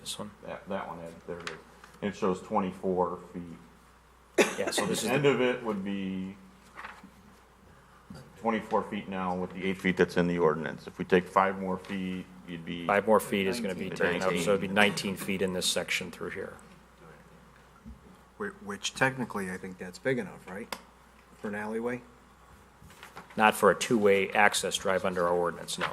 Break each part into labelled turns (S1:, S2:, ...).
S1: This one,
S2: That, that one had, there it is. And it shows twenty-four feet.
S1: yeah, so this
S2: The
S1: is, the-
S2: end of it would be twenty-four feet now with the eight feet that's in the ordinance. If we take five more feet, you'd be,
S1: five more feet is gonna be taken up, so it'd be
S2: 19.
S1: nineteen feet in this section through here.
S3: Whi- Which technically, I think that's big enough, right? For an alleyway?
S1: Not for a two-way access drive under our ordinance, no.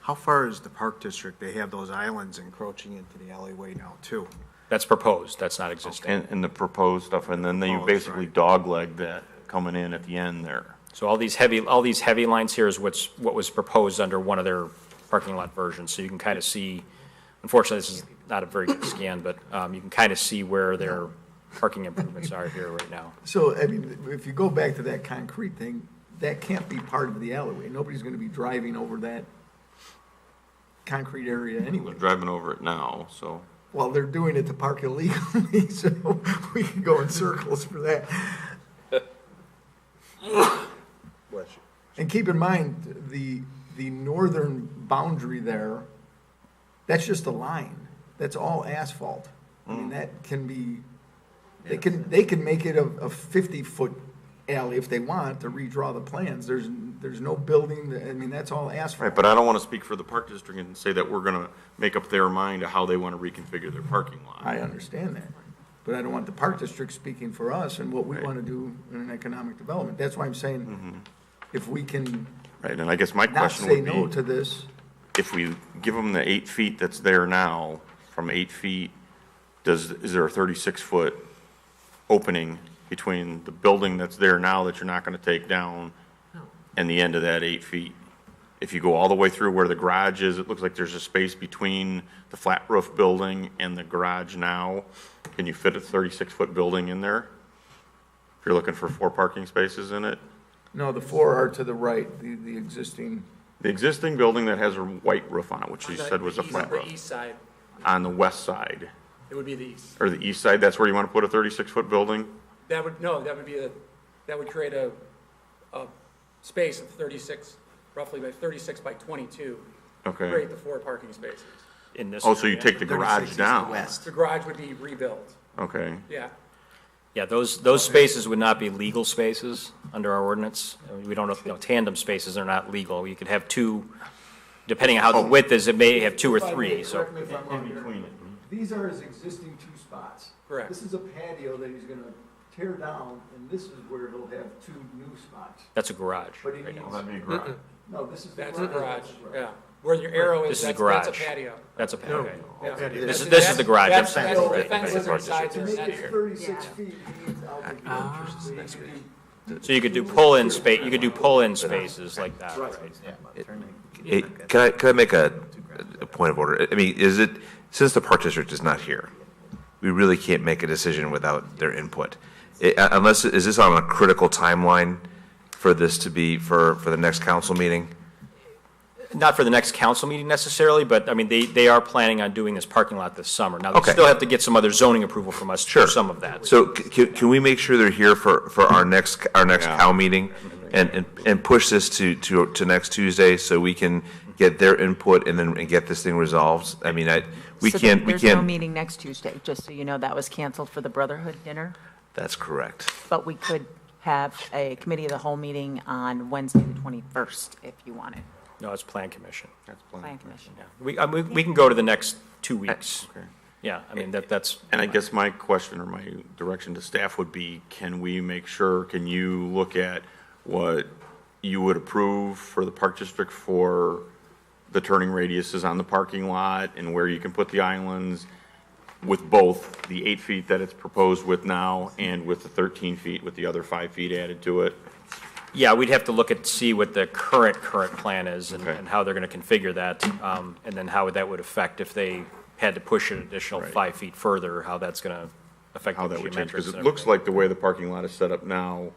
S3: How far is the Park District? They have those islands encroaching into the alleyway now, too.
S1: That's proposed, that's not existing.
S2: and, and the proposed stuff, and then they
S3: Oh, that's
S2: basically
S3: right.
S2: dogleg that coming in at the end there.
S1: So all these heavy, all these heavy lines here is what's, what was proposed under one of their parking lot versions, so you can kind of see, unfortunately, this is not a very good scan, but, um, you can kind of see where their parking improvements are here right now.
S4: So, I mean, if you go back to that concrete thing, that can't be part of the alleyway. Nobody's gonna be driving over that concrete area anyway.
S2: They're driving over it now, so.
S4: Well, they're doing it to park illegally, so we can go in circles for that. And keep in mind, the, the northern boundary there, that's just a line. That's all asphalt. I mean, that can be, they can, they can make it a, a fifty-foot alley if they want to redraw the plans. There's, there's no building, I mean, that's all asphalt.
S2: Right, but I don't want to speak for the park district and say that we're going to make up their mind to how they want to reconfigure their parking lot.
S4: I understand that, but I don't want the park district speaking for us and what we
S2: Right.
S4: want to do in an economic development. That's why I'm saying, if we can
S2: Right, and I guess my
S4: not
S2: question
S4: say
S2: would
S4: no
S2: be,
S4: to this,
S2: if we give them the eight feet that's there now, from eight feet, does, is there a thirty-six foot opening between the building that's there now that you're not going to take down and the end of that eight feet? If you go all the way through where the garage is, it looks like there's a space between the flat roof building and the garage now. Can you fit a thirty-six foot building in there? If you're looking for four parking spaces in it?
S4: no, the four are to the right, the, the existing,
S2: The existing building that has a white roof on it, which you
S5: The
S2: said was a
S5: east-
S2: flat
S5: The
S2: roof,
S5: east side,
S2: on the west side,
S5: it would be the east.
S2: or the east side, that's where you want to put a 36-foot building?
S5: That would, no, that would be a, that would create a, a space of thirty-six, roughly by thirty-six by twenty-two.
S2: Okay.
S5: Create the four parking spaces.
S1: In this
S2: Oh, so you
S1: area.
S2: take the garage down?
S5: The garage would be rebuilt,
S2: Okay,
S5: yeah.
S1: Yeah, those, those spaces would not be legal spaces under our ordinance. I mean, We don't, you know, tandem spaces are not legal. You could have two, depending on how the width is, it may have two or three, so.
S6: Correct me if I'm wrong here. These are his existing two spots.
S5: Correct.
S6: This is a patio that he's gonna tear down, and this is where he'll have two new spots.
S1: That's a garage.
S6: But he needs,
S2: that'd be a garage.
S6: no, this is the garage.
S5: That's the garage,
S6: That's the garage.
S5: yeah. Where your arrow
S1: This
S5: is,
S1: is the
S5: that's, that's a
S1: garage.
S5: patio.
S1: That's a, okay.
S5: Yeah.
S1: This is, this is the garage, I'm
S5: That's-
S1: saying.
S5: that's-
S1: right,
S5: that's
S1: right,
S5: the
S1: right,
S5: sides
S6: To
S5: are-
S1: right.
S6: make
S5: that's-
S6: it thirty-six
S7: Yeah.
S6: feet, he needs out the garage. So he can-
S1: So you could do pull-in space, you could do pull-in spaces like that, right?
S8: Hey, Can I, can I make a, a point of order? I mean, is it, since the Park District is not here, we really can't make a decision without their input. I- Unless, is this on a critical timeline for this to be, for, for the next council meeting?
S1: Not for the next council meeting necessarily, but, I mean, they, they are planning on doing this parking lot this summer. Now, they
S8: Okay.
S1: still have to get some other zoning approval from us for
S8: Sure.
S1: some of that.
S8: So c- can, can we make sure they're here for, for our next, our next
S2: Yeah.
S8: cow meeting? And, and, and push this to, to, to next Tuesday so we can get their input and then, and get this thing resolved? I mean, I, we
S7: So
S8: can't, we
S7: There's no
S8: can't.
S7: meeting next Tuesday, just so you know, that was canceled for the Brotherhood dinner,
S8: That's correct.
S7: but we could have a committee of the whole meeting on Wednesday, the 21st, if you wanted,
S1: No, it's plan commission.
S7: plan commission.
S1: We, I mean, we can go to the next two weeks. Yeah, I mean, that, that's.
S2: And I guess my question or my direction to staff would be, can we make sure, can you look at what you would approve for the park district for the turning radiuses on the parking lot and where you can put the islands with both the eight feet that it's proposed with now and with the thirteen feet with the other five feet added to it?
S1: Yeah, we'd have to look at, see what the current, current plan is and,
S2: Okay.
S1: and how they're gonna configure that, um, and then how that would affect if they had to push an additional
S2: Right.
S1: five feet further, how that's gonna affect
S2: how
S1: the
S2: that would change,
S1: geometrics and
S2: because it looks
S1: everything.
S2: like the way the parking lot is set up now,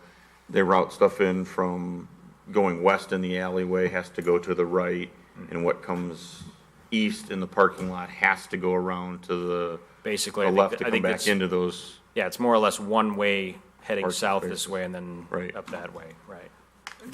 S2: they route stuff in from going west in the alleyway has to go to the right, and what comes east in the parking lot has to go around to the
S1: Basically, I
S2: the
S1: think
S2: left
S1: that-
S2: to
S1: I
S2: come
S1: think
S2: back
S1: that's-
S2: into those,
S1: Yeah, it's more or less one way heading
S2: Parking
S1: south this
S2: spaces.
S1: way and then
S2: Right.
S1: up that way, right.